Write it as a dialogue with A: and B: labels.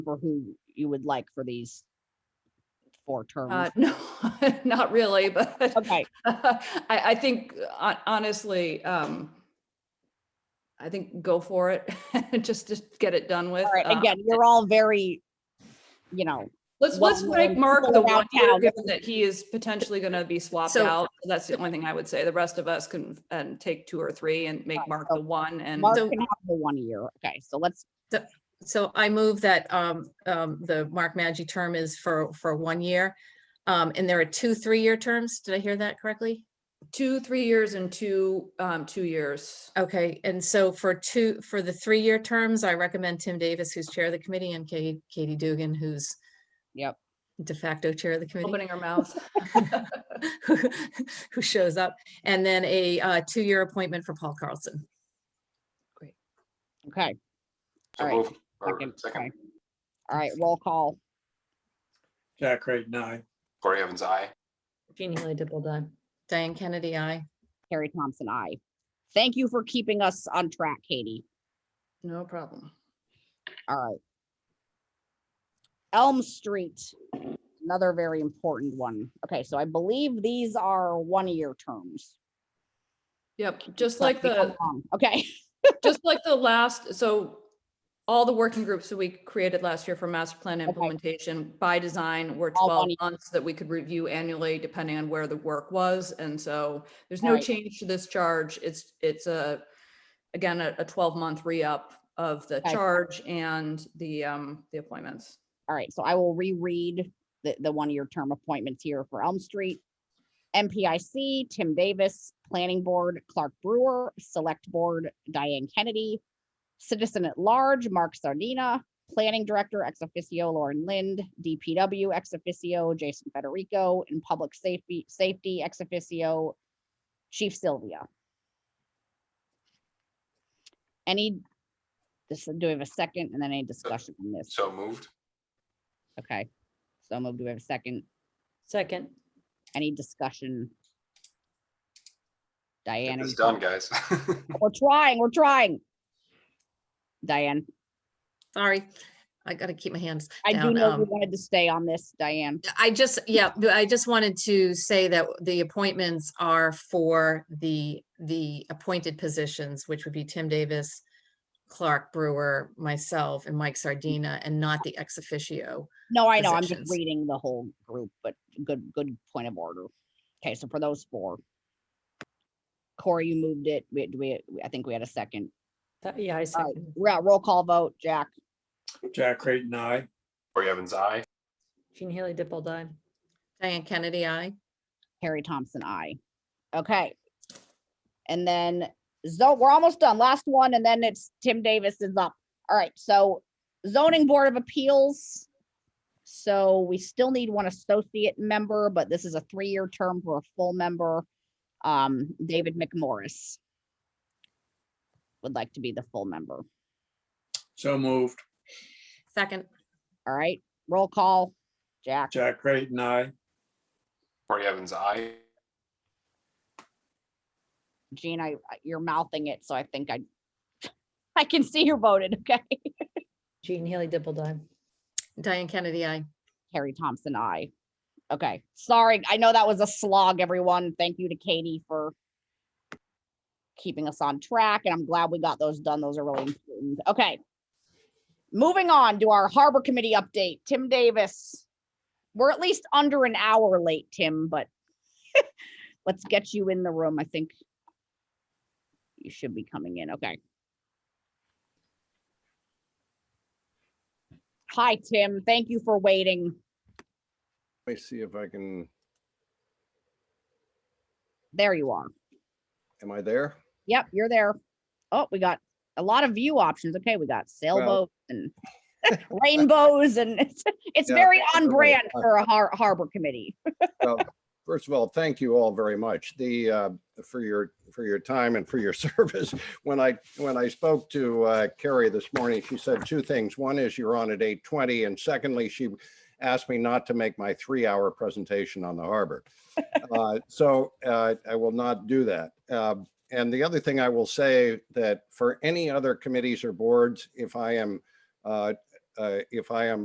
A: remember who you would like for these four
B: Uh,
A: terms.
B: no, not really, but
A: Um, Okay,
B: I, I think hon- honestly, um, I think go for it, just to get it done with.
A: all right,
B: Uh,
A: again, you're all very, you know,
B: Let's,
A: well,
B: let's make
A: we're-
B: Mark
A: we're
B: the
A: around
B: one year,
A: town.
B: given that he is potentially gonna be swapped
C: So-
B: out. That's the only thing I would say. The rest of us can, and take two or three and make
A: Right,
B: Mark
A: so
B: the one and.
A: Mark
C: so-
A: can have the one year. Okay, so let's,
C: So I move that um, um, the Mark Maggi term is for, for one year. Um, And there are two, three-year terms. Did I hear that correctly?
B: two, three years and two, um, two years.
C: Okay, and so for two, for the three-year terms, I recommend Tim Davis, who's chair of the committee, and Katie, Katie Dugan, who's
A: yep,
C: de facto chair of the committee,
B: Opening her mouth.
C: who shows up. And then a uh, two-year appointment for Paul Carlson.
A: okay,
D: So
A: All right.
D: move, or
A: Second,
D: second,
A: all right, roll call.
E: Jack Creighton, aye.
D: Corey Evans, aye.
F: Jeannie Lee Dippledy.
C: Diane Kennedy, I.
A: Carrie Thompson, I. Thank you for keeping us on track, Katie.
B: No problem.
A: All right. Elm Street, another very important one. Okay, so I believe these are one-year terms.
B: Yep, just like
A: correct me if I'm
B: the,
A: wrong. Okay,
B: just like the last, so all the working groups that we created last year for master plan implementation by design were
A: All
B: twelve
A: one year.
B: months that we could review annually depending on where the work was. And so there's
A: All
B: no
A: right.
B: change to this charge. It's, it's a, again, a, a twelve month re-up of the
A: Okay.
B: charge and the, um, the appointments.
A: all right, so I will reread the, the one-year term appointments here for Elm Street. MPIC, Tim Davis, Planning Board, Clark Brewer, Select Board, Diane Kennedy, Citizen at Large, Mark Sardina, Planning Director, ex officio, Lauren Lind, DPW, ex officio, Jason Federico, and Public Safety, Safety, ex officio, Chief Sylvia. Any, this, do we have a second and then any discussion on this?
D: So moved.
A: Okay, so moved. Do we have a second?
F: Second.
A: Any discussion? Diane,
D: It's
A: are you-
D: done, guys.
A: we're trying, we're trying. Diane,
C: Sorry, I gotta keep my hands
A: I do
C: down.
A: know
C: um,
A: you wanted to stay on this, Diane.
C: I just, yeah, but I just wanted to say that the appointments are for the, the appointed positions, which would be Tim Davis, Clark Brewer, myself, and Mike Sardina, and not the ex officio.
A: No, I know, I'm just
C: positions.
A: reading the whole group, but good, good point of order. Okay, so for those four. Corey, you moved it. We, do we, I think we had a second.
F: Th- Yeah, I
A: All right,
F: second.
A: yeah, roll call vote, Jack,
E: Jack Creighton, aye.
D: Corey Evans, aye.
F: Jeannie Haley Dippledy.
C: Diane Kennedy, I.
A: Harry Thompson, I. Okay. And then, so we're almost done. Last one, and then it's Tim Davis is up. All right, so zoning board of appeals. So we still need one associate member, but this is a three-year term for a full member. Um, David McMorris would like to be the full member.
E: So moved.
C: Second,
A: All right, roll call. Jack,
E: Jack Creighton, aye.
D: Corey Evans, aye.
A: Gene, I, you're mouthing it, so I think I, I can see you voted, okay?
F: Jeannie Haley Dippledy.
C: Diane Kennedy, I.
A: Harry Thompson, I. Okay, sorry. I know that was a slog, everyone. Thank you to Katie for keeping us on track, and I'm glad we got those done. Those are really important. Okay. Moving on to our Harbor Committee update. Tim Davis. We're at least under an hour late, Tim, but let's get you in the room. I think you should be coming in. Okay. Hi, Tim. Thank you for waiting.
G: Let me see if I can,
A: There you are.
G: am I there?
A: Yep, you're there. Oh, we got a lot of view options. Okay, we got sailboats and rainbows and it's, it's
G: Yeah,
A: very on
G: everybody-
A: brand for a har- harbor committee.
G: Well, First of all, thank you all very much. The, uh, for your, for your time and for your service. When I, when I spoke to uh, Carrie this morning, she said two things. One is you're on at eight twenty and secondly, she asked me not to make my three hour presentation on the harbor. Uh, So uh, I will not do that. Um, And the other thing I will say that for any other committees or boards, if I am uh, uh, if I am